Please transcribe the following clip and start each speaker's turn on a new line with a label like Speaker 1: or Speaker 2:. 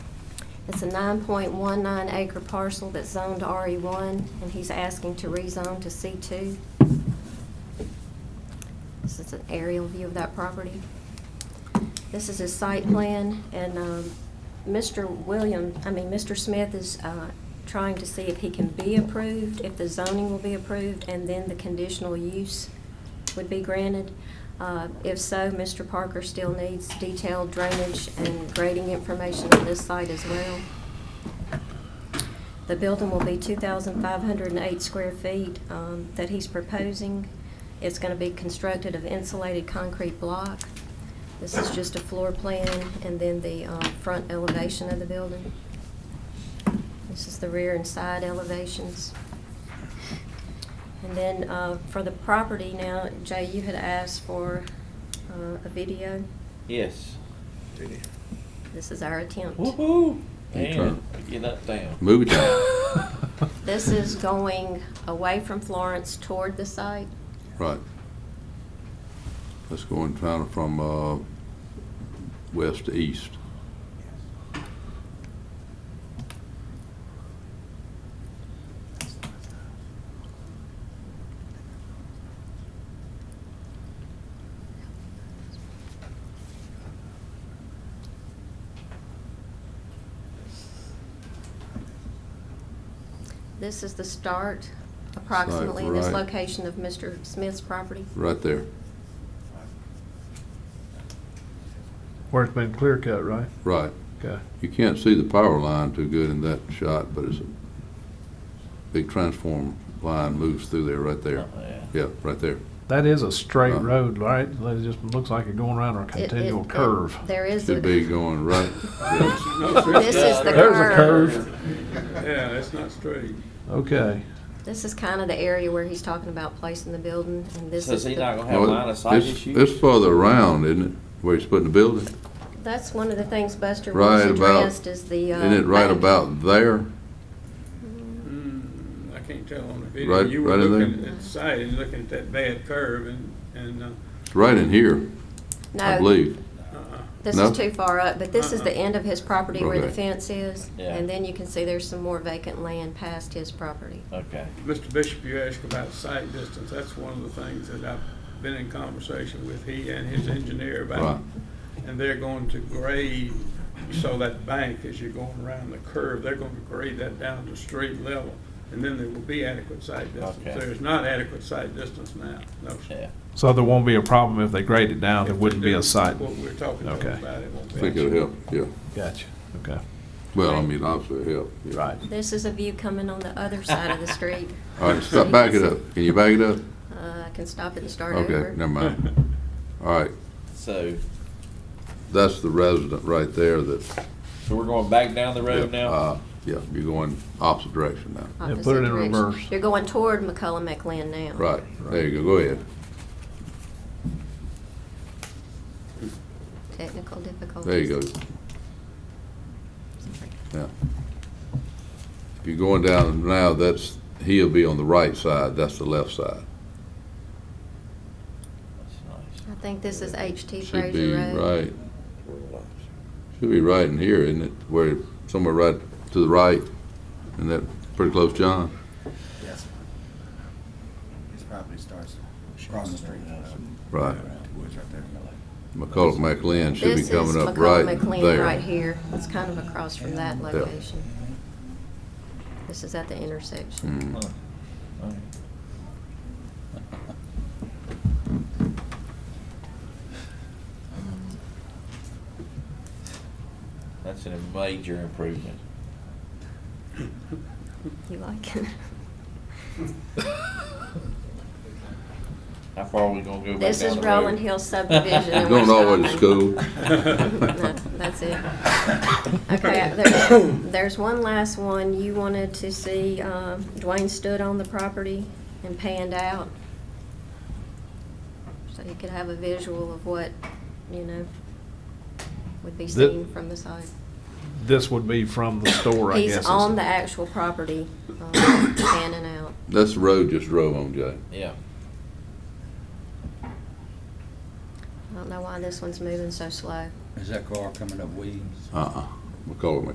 Speaker 1: It's a 9.19 acre parcel that's zoned to RE1, and he's asking to rezone to C2. This is an aerial view of that property. This is his site plan, and um, Mr. William, I mean, Mr. Smith is uh, trying to see if he can be approved, if the zoning will be approved, and then the conditional use would be granted. Uh, If so, Mr. Parker still needs detailed drainage and grading information on this site as well. The building will be 2,508 square feet um, that he's proposing. It's going to be constructed of insulated concrete block. This is just a floor plan and then the um, front elevation of the building. This is the rear and side elevations. And then uh, for the property now, Jay, you had asked for uh, a video.
Speaker 2: Yes.
Speaker 1: This is our attempt.
Speaker 2: Woohoo!
Speaker 3: Your
Speaker 2: Man,
Speaker 3: turn.
Speaker 2: get up down.
Speaker 3: Movie time.
Speaker 1: This is going away from Florence toward the site.
Speaker 3: Right. Let's go in kind of from, uh, west to east.
Speaker 1: This is the start approximately in this
Speaker 3: right.
Speaker 1: location of Mr. Smith's property.
Speaker 3: Right there.
Speaker 4: Where it's been clear cut, right?
Speaker 3: Right.
Speaker 4: Okay.
Speaker 3: You can't see the power line too good in that shot, but it's a big transform line moves through there, right there.
Speaker 2: Oh, yeah.
Speaker 3: Yeah, right there.
Speaker 4: That is a straight
Speaker 3: Uh.
Speaker 4: road, right? It just looks like you're going around a
Speaker 1: It- it-
Speaker 4: continual
Speaker 1: it-
Speaker 4: curve.
Speaker 1: There is a,
Speaker 3: Should be going right. yes.
Speaker 1: this is the
Speaker 4: There's a
Speaker 1: curve.
Speaker 5: Yeah, that's not straight.
Speaker 4: Okay.
Speaker 1: This is kind of the area where he's talking about placing the building, and this
Speaker 2: So
Speaker 1: is
Speaker 2: is he not
Speaker 1: the,
Speaker 2: gonna have
Speaker 3: No,
Speaker 2: line of sight
Speaker 3: it's-
Speaker 2: issues?
Speaker 3: It's further around, isn't it, where he's putting the building?
Speaker 1: that's one of the things Buster was
Speaker 3: Right about,
Speaker 1: addressed is
Speaker 3: isn't
Speaker 1: the, uh.
Speaker 3: it right
Speaker 1: bank.
Speaker 3: about there?
Speaker 5: Mm, I can't tell on the video.
Speaker 3: Right-
Speaker 5: You were
Speaker 3: right in there?
Speaker 5: looking at the site and looking at that bad curve and, and, uh,
Speaker 3: It's right in here, I
Speaker 1: No,
Speaker 3: believe.
Speaker 5: uh,
Speaker 1: this
Speaker 3: No?
Speaker 1: is too far up, but this is the end of his property where the
Speaker 3: Okay.
Speaker 1: fence is,
Speaker 2: Yeah.
Speaker 1: and then you can see there's some more vacant land past his property.
Speaker 2: Okay.
Speaker 5: Mr. Bishop, you asked about sight distance. That's one of the things that I've been in conversation with he and his engineer
Speaker 3: Right.
Speaker 5: about. And they're going to grade, so that bank, as you're going around the curve, they're going to grade that down to street level. And then there will be adequate sight distance.
Speaker 2: Okay.
Speaker 5: There is not adequate sight distance now, no, sir.
Speaker 2: Yeah.
Speaker 4: So there won't be a problem if they grade it down. There wouldn't be a site.
Speaker 5: What we're talking about,
Speaker 4: Okay.
Speaker 5: it won't
Speaker 3: I
Speaker 5: be.
Speaker 3: think it'll help, yeah.
Speaker 4: Gotcha. Okay.
Speaker 3: Well, I mean, obviously it'll help. yeah.
Speaker 4: Right.
Speaker 1: This is a view coming on the other side of the street.
Speaker 3: All right, stop, back it up. Can you back it up?
Speaker 1: Uh, I can stop it and start over.
Speaker 3: Okay, never mind. All right,
Speaker 2: So,
Speaker 3: that's the resident right there that.
Speaker 2: so we're going back down the road now?
Speaker 3: uh, Yeah, you're going opposite direction now.
Speaker 4: Yeah, put
Speaker 1: opposite
Speaker 4: it in
Speaker 1: direction.
Speaker 4: reverse.
Speaker 1: You're going toward McCullough McLean now.
Speaker 3: Right, there you go, go ahead.
Speaker 1: Technical difficulties.
Speaker 3: There you go. Yeah. If you're going down now, that's, he'll be on the right side, that's the left side.
Speaker 2: That's
Speaker 1: I think this is HT
Speaker 3: Should be
Speaker 1: Fraser Road.
Speaker 3: right, should be right in here, isn't it? Where, somewhere right to the right, and that, pretty close, John.
Speaker 6: Yes. His property starts across the street.
Speaker 3: Right.
Speaker 6: Woods right there.
Speaker 3: McCullough McLean should be
Speaker 1: This is
Speaker 3: coming up
Speaker 1: McCullough
Speaker 3: right there.
Speaker 1: McLean right here. It's kind of across from that
Speaker 6: Yeah.
Speaker 1: location. This is at the intersection.
Speaker 3: Mm.
Speaker 2: nice. All right. That's a major improvement.
Speaker 1: You like it?
Speaker 2: How far are we gonna go back down the road?
Speaker 1: This is Rolling Hill subdivision. and
Speaker 3: Going
Speaker 1: we're
Speaker 3: all the way to
Speaker 1: stopping.
Speaker 3: school.
Speaker 1: No, That's it. Okay, there's, there's one last one. You wanted to see uh, Dwayne stood on the property and panned out. So you could have a visual of what, you know, would be
Speaker 4: The-
Speaker 1: seen from the side.
Speaker 4: This would be from the store, I guess.
Speaker 1: He's
Speaker 4: is-
Speaker 1: on the actual property, um, panning out.
Speaker 3: That's the road just drove on, Jay.
Speaker 2: Yeah.
Speaker 1: I don't know why this one's moving so slow.
Speaker 6: Is that car coming up Williams?
Speaker 3: Uh-uh, McCullough